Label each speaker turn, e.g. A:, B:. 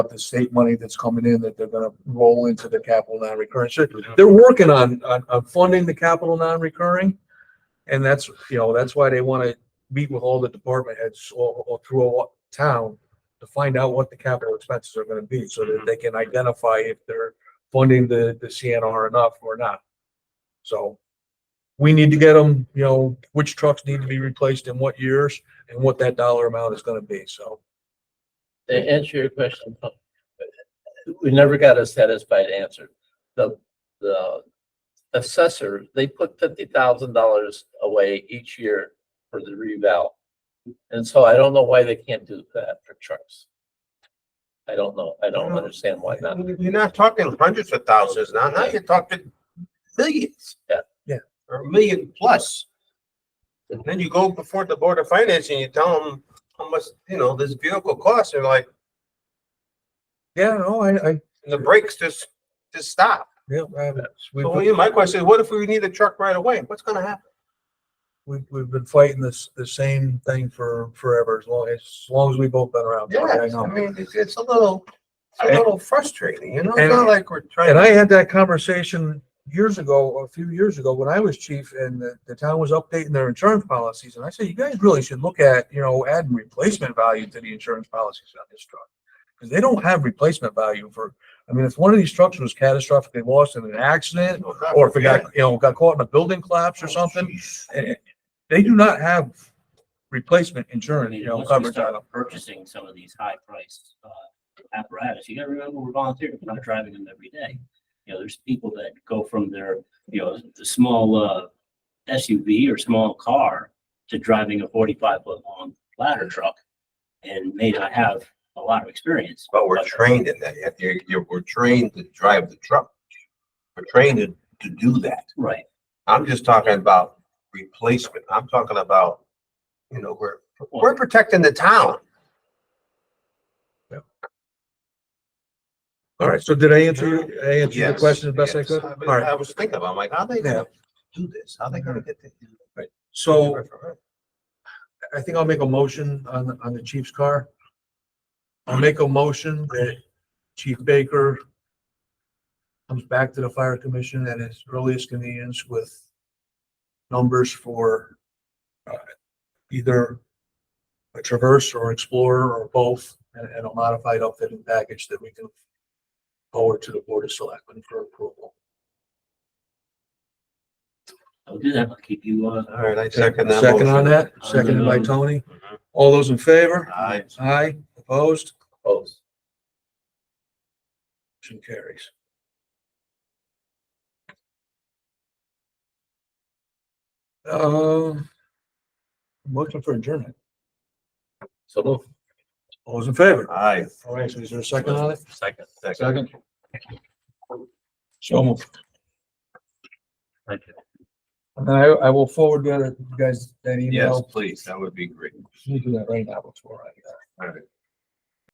A: the state money that's coming in that they're gonna roll into the capital non-recurring. So They're working on, on, on funding the capital non-recurring. And that's, you know, that's why they wanna meet with all the department heads all, all through all town to find out what the capital expenses are gonna be, so that they can identify if they're funding the, the CNR enough or not. So we need to get them, you know, which trucks need to be replaced in what years and what that dollar amount is gonna be, so.
B: To answer your question, uh, we never got a satisfied answer. The, the assessor, they put fifty thousand dollars away each year for the reval. And so I don't know why they can't do that for trucks. I don't know. I don't understand why not.
C: You're not talking hundreds of thousands now, now you're talking millions.
B: Yeah.
A: Yeah.
C: Or a million plus. And then you go before the Board of Finance and you tell them how much, you know, this vehicle costs, and like,
A: Yeah, no, I, I,
C: and the brakes just, just stop.
A: yeah, I- we've,
C: So
A: been-
C: yeah, my question is, what if we need a truck right away? What's gonna happen?
A: we've, we've been fighting this, the same thing for forever, as long, as long as we both been around. Tony, I
C: Yeah,
A: know.
C: I mean, it's, it's a little, it's
A: And-
C: a little frustrating, you know,
A: and-
C: it's not like we're trying.
A: And I
C: to
A: had that conversation years ago, a few years ago, when I was chief and the, the town was updating their insurance policies. And I said, you guys really should look at, you know, adding replacement value to the insurance policies on this truck. Because they don't have replacement value for, I mean, if one of these trucks was catastrophically lost in an accident or if it got, you know, got caught in a building collapse or
C: Oh,
A: something, eh, they do not have replacement insurance, you know,
D: Once we
A: coverage on
D: start
A: them.
D: purchasing some of these high priced uh apparatus, you gotta remember, we're volunteers, we're not driving them every day. You know, there's people that go from their, you know, the small uh SUV or small car to driving a forty-five foot long ladder truck and may not have a lot of experience.
C: But we're trained in that. If You're, you're, we're trained to drive the truck. We're trained to, to do that.
D: Right,
C: I'm just talking about replacement. I'm talking about, you know, we're, we're protecting the town.
A: All right, so did I answer, I answer your
C: Yes,
A: question as best I
C: yes.
A: could? All
C: I-
A: right,
C: I was thinking about, I'm like, how they gonna do this? How they gonna get the?
A: so I think I'll make a motion on, the- on the chief's car. I'll make a motion that Chief Baker comes back to the fire commission at his earliest convenience with numbers for uh, either a Traverse or Explorer or both, and, and a modified outfitting package that we can forward to the Board of Selectmen for approval.
D: I'll do that, I'll keep you uh.
C: All right, I second that.
A: Second on
C: motion.
A: that, seconded by Tony. All those in favor?
C: Aye.
A: Aye, opposed?
B: Close.
A: Motion carries. Um, motion for adjournment.
B: So move.
A: All those in favor?
C: Aye.
A: All right, so is there a second on it?
B: Second.
A: Second. So moved.
D: Thank you.
A: And then I, I will forward that, you guys, that
C: Yes,
A: email.
C: please. That would be great.
A: You do that right now before I, uh,
C: All right.